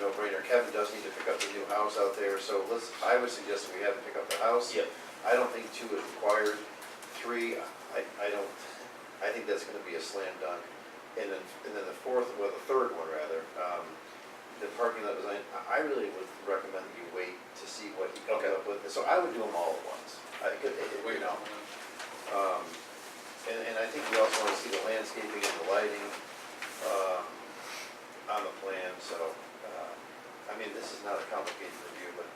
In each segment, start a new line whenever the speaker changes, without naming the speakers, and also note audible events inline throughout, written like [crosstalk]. no-brainer. Kevin does need to pick up the new house out there, so let's, I would suggest we have him pick up the house.
Yep.
I don't think two is required. Three, I, I don't, I think that's gonna be a slam dunk. And then, and then the fourth, well, the third one rather, um, the parking lot design, I- I really would recommend that you wait to see what he comes
Okay.
up with. So I would do them all at once. I could, you know. Um, and, and I think we also wanna see the landscaping and the lighting, um, on the plan, so, uh, I mean, this is not a complicated review, but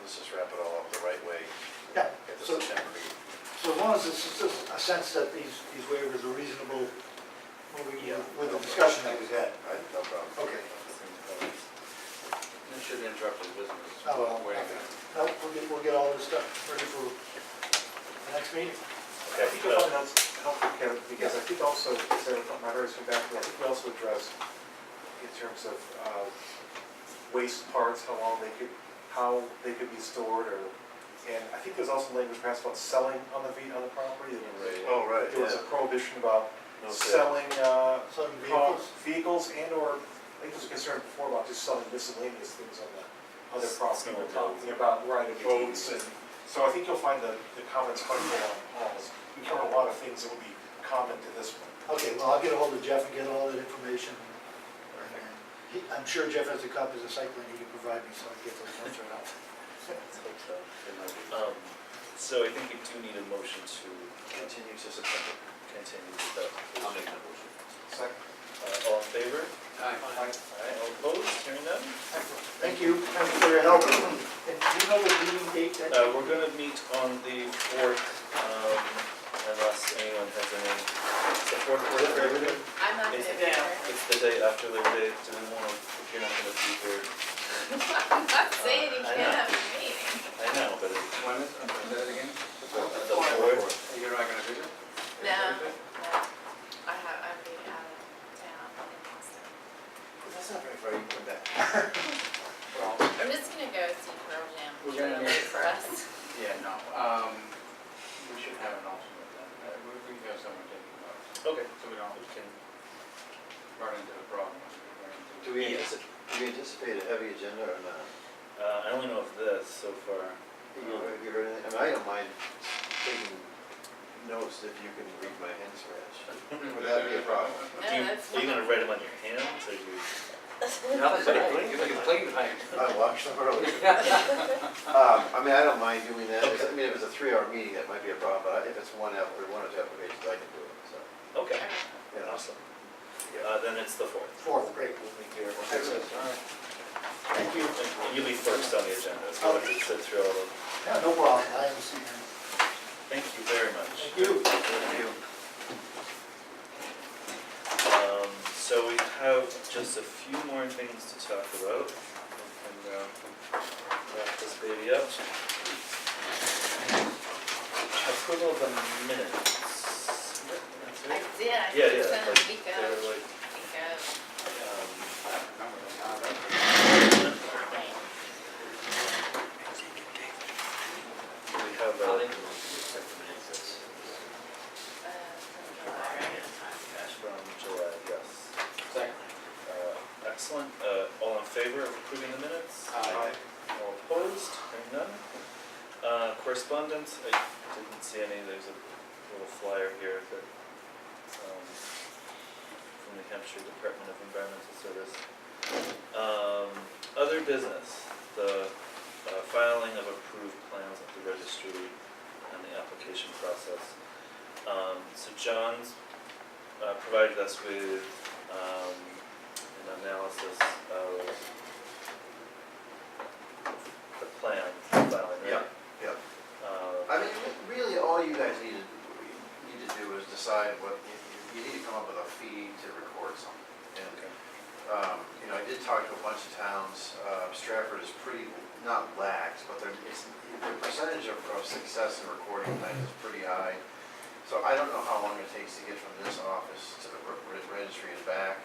let's just wrap it all up the right way.
Yeah,
At the
so-
September meeting.
So as long as it's just a sense that these, these waivers are reasonable, moving with the discussion that we've had.
All right, no problem.
Okay.
That shouldn't interrupt his business.
Oh, well,
Wait a
okay.
minute.
No, we'll get, we'll get all this stuff ready for the next meeting.
I think you'll find that's helpful, Kevin, because I think also, so my very soon back, I think we also addressed in terms of uh, waste parts, how long they could, how they could be stored, or, and I think there's also language perhaps about selling on the, ve- on the property. and
Oh, right,
There was a prohibition about selling uh,
Selling
car-
vehicles?
vehicles and or, I think there was a concern before about just selling miscellaneous things on the other property.
Smaller towns.
you know, About riding boats and, so I think you'll find the, the comments helpful on all this. We cover a lot of things that will be common to this one.
Okay, well, I'll get ahold of Jeff and get all that information. And then he- I'm sure Jeff has a copy of the site plan he can provide me, so I can get those notes right out.
Um, So I think you do need a motion to
Continue to September.
continue with that.
I'll make that motion.
Second,
Uh, All in favor?
I-
All right, all opposed, hearing none?
Thank you, thank you for your help. And do you know the meeting date that?
Uh, We're going to meet on the 4th, um, unless anyone has any, the 4th, 4th, Labor Day?
I'm not gonna be
It's-
there.
It's the day after Labor Day, do we want, if you're not going to be here,
[laughs] I'm not saying you
Uh, I
can't
know.
have a meeting.
I know, but it's uh,
When is, I'm sorry, say that again?
the 4th.
You're not gonna visit?
No, no. I have, I'm being out of town in Boston.
That's not very far, you can come back.
Well,
I'm just gonna go see Pearl Jam.
We're
They're
gonna
late
make-
For us.
yeah, no, um, we should have an alternate then, Uh, we, we can have someone take the notes,
Okay.
so we don't
We can
run into the problem. we run into-
Do we
Yeah.
anticipate, do we anticipate a heavy agenda or not?
Uh, I only know of this so far.
You know, Have you heard anything? I mean, I don't mind taking notes if you can read my hand scratch. Would that be a problem?
No,
Do you-
that's
Are you gonna
not.
write them on your hands, or you?
No, you can play with it.
I watched them earlier. Um, I mean, I don't mind doing that. It's- I mean, if it's a three-hour meeting, that might be a problem, but if it's one app, or one or two applications, I can do it, so.
Okay,
Okay.
you know.
awesome. Uh, then it's the fourth.
Fourth, great.
Excellent. All right.
Thank you.
And You'll be first on the agenda, so I'll just sit through all of them.
Yeah, no problem, I haven't seen him.
Thank you very much.
Thank you.
Thank you.
Um, so we have just a few more things to talk about. And, uh, wrap this baby up. Approval of the minutes.
I did, I
Yeah,
did
yeah,
send
like,
a week
they
out,
were like,
week out.
um,
uh,
We have a.
Uh,
From July, yes. Uh, Excellent, Uh, all in favor of approving the minutes?
Aye.
All opposed, hearing none. Uh, Correspondence, I didn't see any, there's a little flyer here that, um, from the Hampshire Department of Environmental Service. Um, Other business, the uh, filing of approved plans at the registry and the application process. Um, So John's uh, provided us with um, an analysis of the plan filing, right?
Yeah, yeah.
Uh,
I mean, really, all you guys need to, need to do is decide what, you, you- you need to come up with a fee to record something. And, um, you know, I did talk to a bunch of towns, uh, Stratford is pretty, not lax, but their, it's, their percentage of, of success in recording plans is pretty high. So I don't know how long it takes to get from this office to the re- re- registry and back.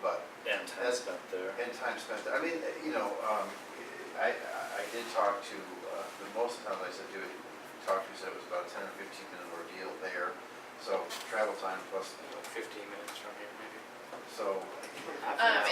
But
And time
That's-
spent there.
and time spent, I mean, you know, um, I, I did talk to, uh, the most times I said, do it, talked to, said it was about a ten or fifteen minute ordeal there. So travel time plus,
Fifteen minutes from here, maybe.
so.
Um,